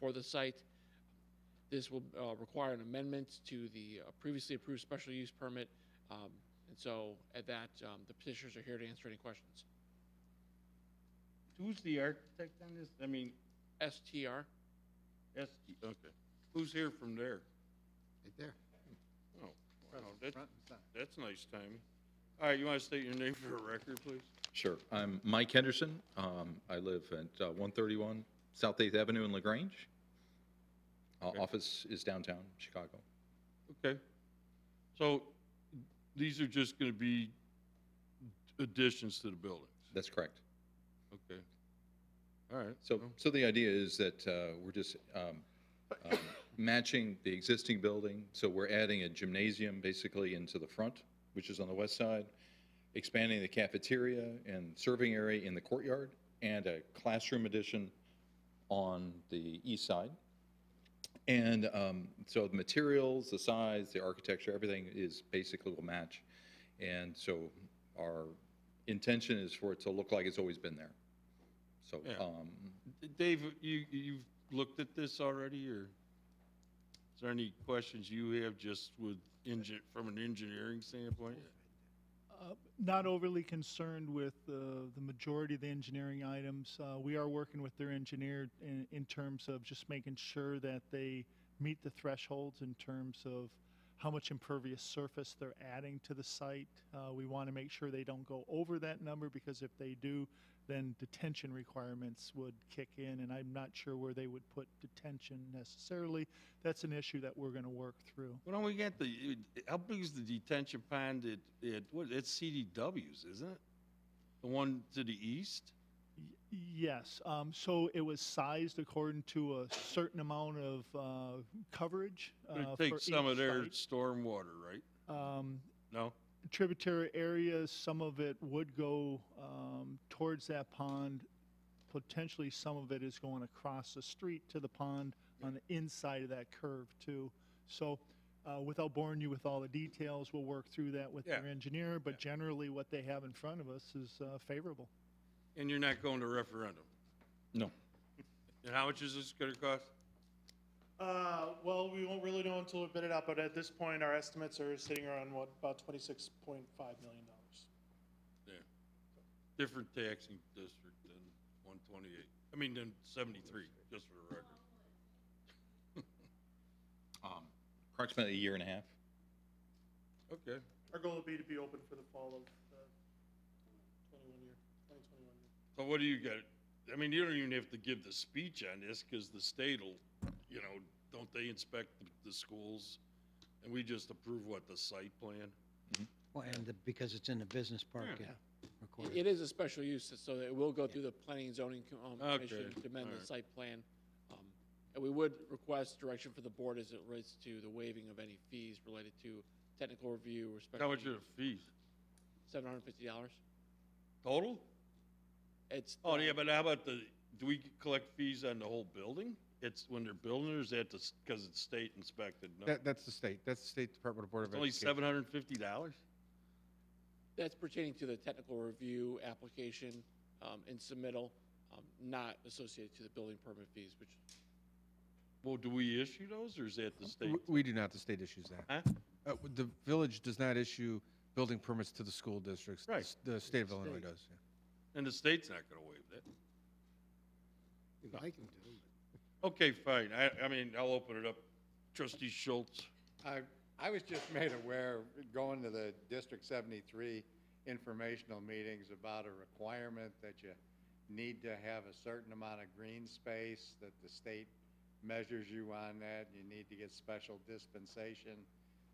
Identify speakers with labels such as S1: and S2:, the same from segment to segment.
S1: for the site. This will uh, require an amendment to the uh, previously approved special use permit. Um, And so at that, um, the petitioners are here to answer any questions.
S2: Who's the architect on this? I mean,
S1: STR,
S2: S, okay. Who's here from there?
S3: Right there.
S2: Oh, wow,
S3: Front-
S2: that,
S3: front and center.
S2: that's nice timing. All right, you want to state your name for the record, please?
S4: Sure. I'm Mike Henderson. Um, I live at uh, 131 South 8th Avenue in LaGrange. Uh,
S2: Okay.
S4: Office is downtown Chicago.
S2: Okay. So these are just going to be additions to the buildings?
S4: That's correct.
S2: Okay. All right.
S4: So,
S2: Well,
S4: so the idea is that uh, we're just um, um, matching the existing building. So we're adding a gymnasium basically into the front, which is on the west side, expanding the cafeteria and serving area in the courtyard, and a classroom addition on the east side. And um, so the materials, the size, the architecture, everything is basically will match. And so our intention is for it to look like it's always been there. So
S2: Yeah.
S4: um,
S2: D- Dave, you, you've looked at this already, or is there any questions you have just with engine, from an engineering standpoint?
S5: Uh, Not overly concerned with uh, the majority of the engineering items. Uh, We are working with their engineer in, in terms of just making sure that they meet the thresholds in terms of how much impervious surface they're adding to the site. Uh, We want to make sure they don't go over that number because if they do, then detention requirements would kick in, and I'm not sure where they would put detention necessarily. That's an issue that we're going to work through.
S2: Well, don't we got the, how big is the detention pond at, at, what, it's CDW's, isn't it? The one to the east?
S5: Y- Yes, um, so it was sized according to a certain amount of, uh, coverage.
S2: It
S5: uh, for
S2: takes some
S5: each
S2: of their
S5: site.
S2: storm water, right?
S5: Um,
S2: No?
S5: tributary areas, some of it would go, um, towards that pond. Potentially, some of it is going across the street to the pond on the inside of that curve too. So, uh, without boring you with all the details, we'll work through that with
S2: Yeah.
S5: their engineer, but generally what they have in front of us is, uh, favorable.
S2: And you're not going to referendum?
S4: No.
S2: And how much is this gonna cost?
S6: Uh, well, we won't really know until we bid it out, but at this point, our estimates are sitting around what, about twenty-six point five million dollars.
S2: Different taxing district than one twenty-eight, I mean, than seventy-three, just for the record.
S4: um, approximately a year and a half.
S2: Okay,
S6: Our goal would be to be open for the fall of the twenty-one year, twenty twenty-one year.
S2: so what do you got? I mean, you don't even have to give the speech on this, cause the state'll, you know, don't they inspect the, the schools? And we just approve what, the site plan?
S7: Well, and the- because it's in the business park,
S2: Yeah.
S7: yeah.
S1: It-
S7: recorded.
S1: it is a special use, so it will go through the planning and zoning co- um,
S2: Okay,
S1: commission to amend the
S2: alright.
S1: site plan. Um, And we would request direction for the board as it relates to the waiving of any fees related to technical review or special.
S2: How much are the fees?
S1: Seven hundred and fifty dollars.
S2: Total?
S1: It's.
S2: Oh,
S1: uh,
S2: yeah, but how about the, do we collect fees on the whole building? It's when they're building, or is that just, cause it's state inspected? No.
S3: That, that's the state, that's the State Department of Board
S2: It's
S3: of
S2: only
S3: Education.
S2: seven hundred and fifty dollars?
S1: That's pertaining to the technical review application um, and submittal, um, not associated to the building permit fees, which
S2: Well, do we issue those, or is that the state?
S3: W- We do not, the state issues that.
S2: Huh?
S3: Uh, w- The village does not issue building permits to the school districts. The
S2: Right.
S3: s- The state of Illinois does. yeah.
S2: And the state's not gonna waive that.
S3: We'd like them to.
S2: Okay, fine, I, I mean, I'll open it up. Trustee Schultz,
S8: I, I was just made aware, going to the District 73 informational meetings about a requirement that you need to have a certain amount of green space, that the state measures you on that, you need to get special dispensation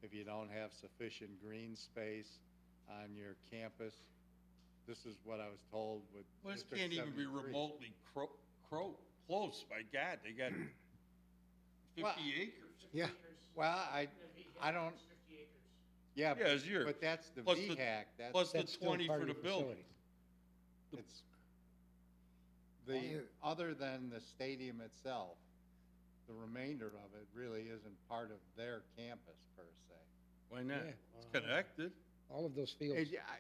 S8: if you don't have sufficient green space on your campus. This is what I was told with
S2: well, this
S8: District
S2: can't even be
S8: 73.
S2: remotely cro, cro, close, my God, they got
S8: Well-
S2: fifty acres.
S3: Yeah.
S8: Well, I, I don't. Yeah.
S2: Yeah, it's yours.
S8: But that's the
S2: Plus the-
S8: VHAC, that's.
S2: Plus the
S7: That's still
S2: twenty
S7: part
S2: for
S7: of
S2: the
S7: the
S2: building.
S7: facility.
S2: The-
S8: It's, the, other than the stadium itself, the remainder of it really isn't part of their campus per se.
S2: Why not?
S3: Yeah.
S2: It's connected.
S7: All of those fields.
S8: It- I-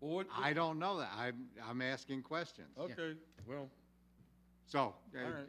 S2: Well, what,
S8: I don't know that, I'm, I'm asking questions.
S2: okay, well.
S8: So, uh,
S2: All right.